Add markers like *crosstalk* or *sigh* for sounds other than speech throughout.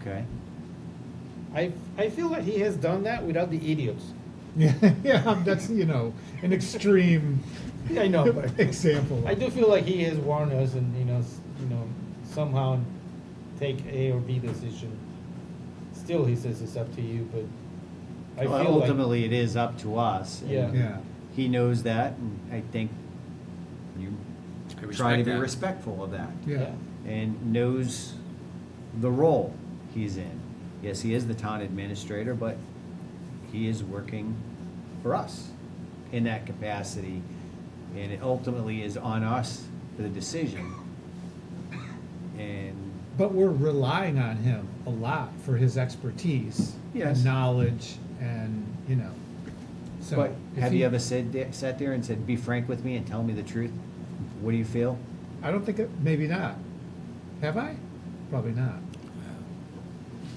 Okay. I, I feel that he has done that without the idiots. Yeah, *laughs* yeah, that's, you know, *laughs* an extreme I *laughs* know, but example. I do feel like he has warned us and, you know, s- you know, somehow take A or B decision. Still, he says it's up to you, but I Well, feel like. ultimately, it is up to us. and Yeah. Yeah, He knows that, and I think you try to I respect be that. respectful of that. yeah, And knows the role he's in. Yes, he is the town administrator, but he is working for us in that capacity. And it ultimately is on us for the decision. And but we're relying on him a lot for his expertise. Yes. And knowledge and, you know, so. But if have he- you ever said, there- sat there and said, be frank with me and tell me the truth? What do you feel? I don't think, it maybe not. Have I? Probably not.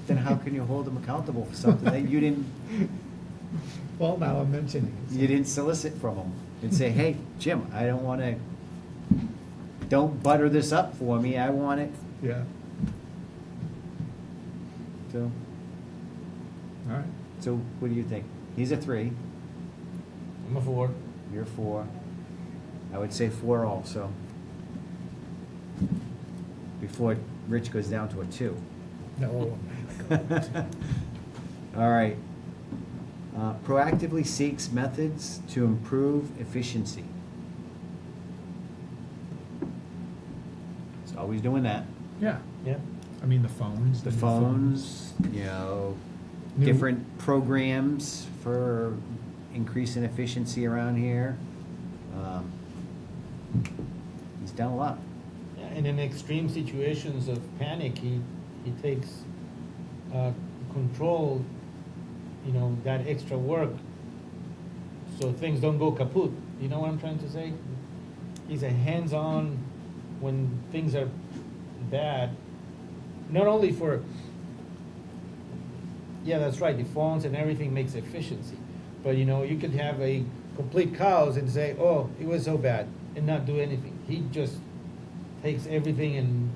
Then how can you hold them accountable for something that you didn't, *laughs* Well, now I'm mentioning it. so- you didn't solicit from them? And say, hey, Jim, I don't wanna, don't butter this up for me, I want it Yeah, to, all right. so what do you think? He's a three, I'm a four. you're a four. I would say four also. Before Rich goes down to a two. No, oh, *laughs* All right. Uh, Proactively seeks methods to improve efficiency. It's always doing that. yeah, Yeah. I mean, the phones. The new phones, you know, New- different programs for increasing efficiency around here. Um, He's done a lot. Yeah, And in extreme situations of panic, he, he takes uh, control, you know, that extra work so things don't go kaput. You know what I'm trying to say? He's a hands on when things are bad, not only for, yeah, that's right, the phones and everything makes efficiency. But you know, you could have a complete cows and say, oh, it was so bad, and not do anything. He just takes everything and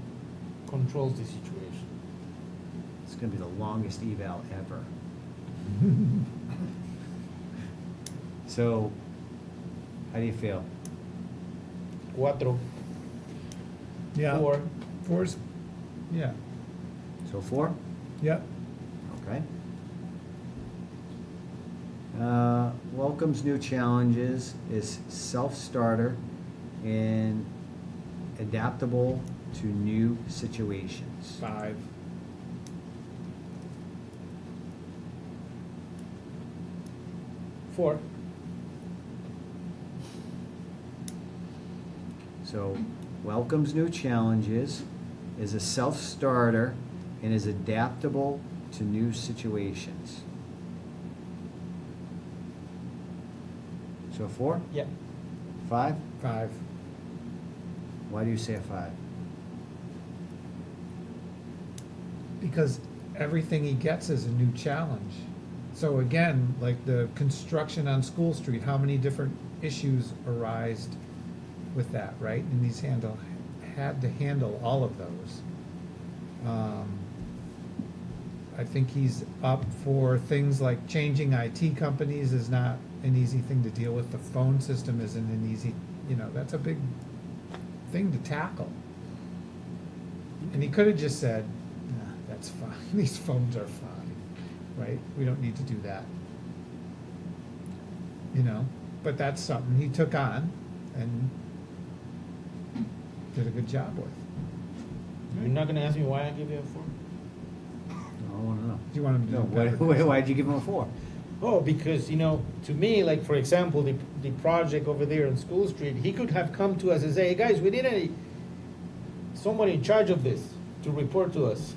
controls the situation. It's gonna be the longest eval ever. So, how do you feel? Cuatro, Yeah. four. Fours, yeah, So four? yep, Okay. Uh, Welcomes new challenges, is self-starter, and adaptable to new situations. five. Four. So, welcomes new challenges, is a self-starter, and is adaptable to new situations. So four, Yeah. five? Five. Why do you say a five? because everything he gets is a new challenge. So again, like the construction on School Street, how many different issues arised with that, right? And he's handle, had to handle all of those. Um, I think he's up for things like changing IT companies is not an easy thing to deal with. The phone system isn't an easy, you know, that's a big thing to tackle. And he could have just said, nah, that's fine, *laughs* these phones are fine, right? We don't need to do that. You know, but that's something he took on and did a good job with. You're not gonna ask me why I give you a four? Oh, I don't wanna know. Do you want him to No, do why, better? why- why'd you give him a four? Oh, because, you know, to me, like, for example, the, the project over there on School Street, he could have come to us and say, hey, guys, we need a, someone in charge of this to report to us.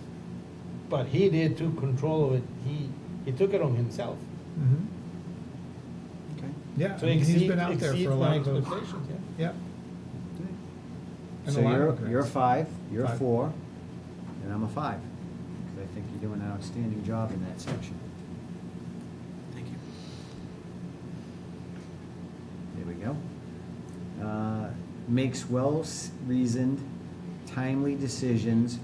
But he did took control of it. He, he took it on himself. Mhm. Okay. Yeah, So I mean, he's exceed- been out there exceeds for a my lot of those. expectations, yeah. Yep. And So a lot of you're, regrets. you're a five, you're a Five. four, and I'm a five. 'Cause I think you're doing an outstanding job in that section. Thank you. There we go. Uh, Makes well-reasoned, timely decisions